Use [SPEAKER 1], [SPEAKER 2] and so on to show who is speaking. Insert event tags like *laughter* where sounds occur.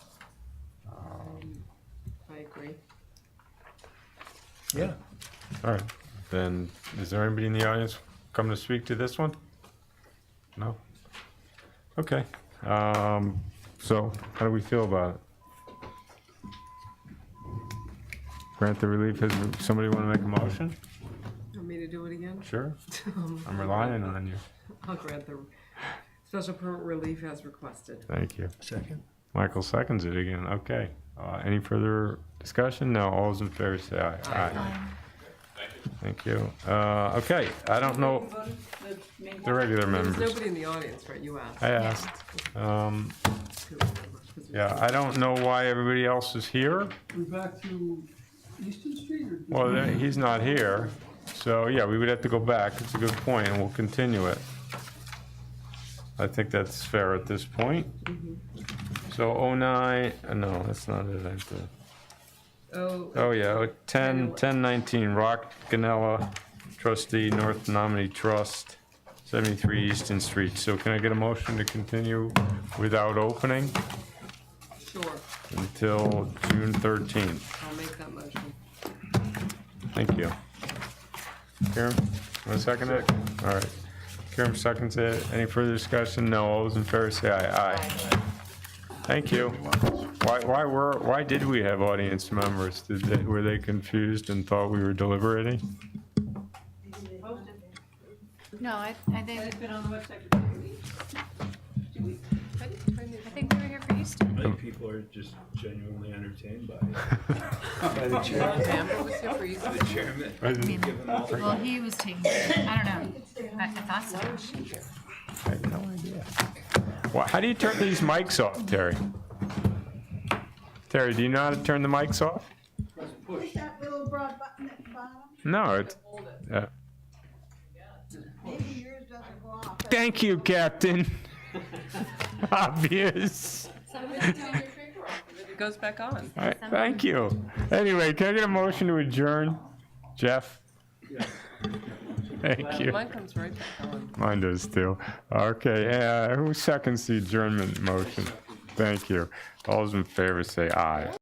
[SPEAKER 1] Yeah.
[SPEAKER 2] All right, then, is there anybody in the audience come to speak to this one? No? Okay, um, so how do we feel about it? Grant the relief, has, somebody want to make a motion?
[SPEAKER 3] Want me to do it again? *laughs*
[SPEAKER 2] Sure,
[SPEAKER 3] Um,
[SPEAKER 2] I'm relying on you.
[SPEAKER 3] I'll grant the special permit relief as requested.
[SPEAKER 2] Thank you.
[SPEAKER 1] Second.
[SPEAKER 2] Michael seconds it again, okay. Uh, any further discussion? No, all those in favor say aye. Aye. Thank you. Uh, okay, I don't know, the regular
[SPEAKER 3] There's
[SPEAKER 2] members,
[SPEAKER 3] nobody in the audience, right? You asked.
[SPEAKER 2] I asked. Um,
[SPEAKER 3] too, 'cause we-
[SPEAKER 2] Yeah, I don't know why everybody else is here.
[SPEAKER 4] We back to Easton Street or?
[SPEAKER 2] Well, th- he's not here, so yeah, we would have to go back. It's a good point, and we'll continue it. I think that's fair at this point. So 09, uh, no, that's not it. I have to-
[SPEAKER 3] Oh,
[SPEAKER 2] Oh, yeah, oh, 10, 1019, Rock Ganella, trustee, North Nominee Trust, 73 Easton Street. So can I get a motion to continue without opening
[SPEAKER 3] sure.
[SPEAKER 2] until June 13th?
[SPEAKER 3] I'll make that motion.
[SPEAKER 2] Thank you. Karen, want to second it? All right. Karen seconds it. Any further discussion? No. All those in favor say aye. Aye. Thank you. Why, why were, why did we have audience members? Did they, were they confused and thought we were deliberating?
[SPEAKER 5] No, I, I think,
[SPEAKER 6] It's been on the website for two weeks. Two weeks.
[SPEAKER 5] I think we were here for Easter.
[SPEAKER 7] I think people are just genuinely entertained by it.
[SPEAKER 1] *laughs* By the
[SPEAKER 7] *laughs*
[SPEAKER 1] chair.
[SPEAKER 3] Pam, what's your reason?
[SPEAKER 7] The chairman,
[SPEAKER 2] I
[SPEAKER 5] I mean,
[SPEAKER 2] didn't-
[SPEAKER 5] well, he was taking, I don't know. I I thought so.
[SPEAKER 2] I had no idea. Why- How do you turn these mics off, Terry? Terry, do you know how to turn the mics off?
[SPEAKER 8] Push that little broad button at the bottom,
[SPEAKER 2] No, it's, yeah.
[SPEAKER 8] maybe yours doesn't go off.
[SPEAKER 2] Thank you, Captain. *laughs* Obvious.
[SPEAKER 3] It goes back on.
[SPEAKER 2] All right, thank you. Anyway, can I get a motion to adjourn? Jeff? Thank you.
[SPEAKER 3] Mine comes right back on.
[SPEAKER 2] Mine does too. Okay, uh, who seconds the adjournment motion? Thank you. All those in favor say aye.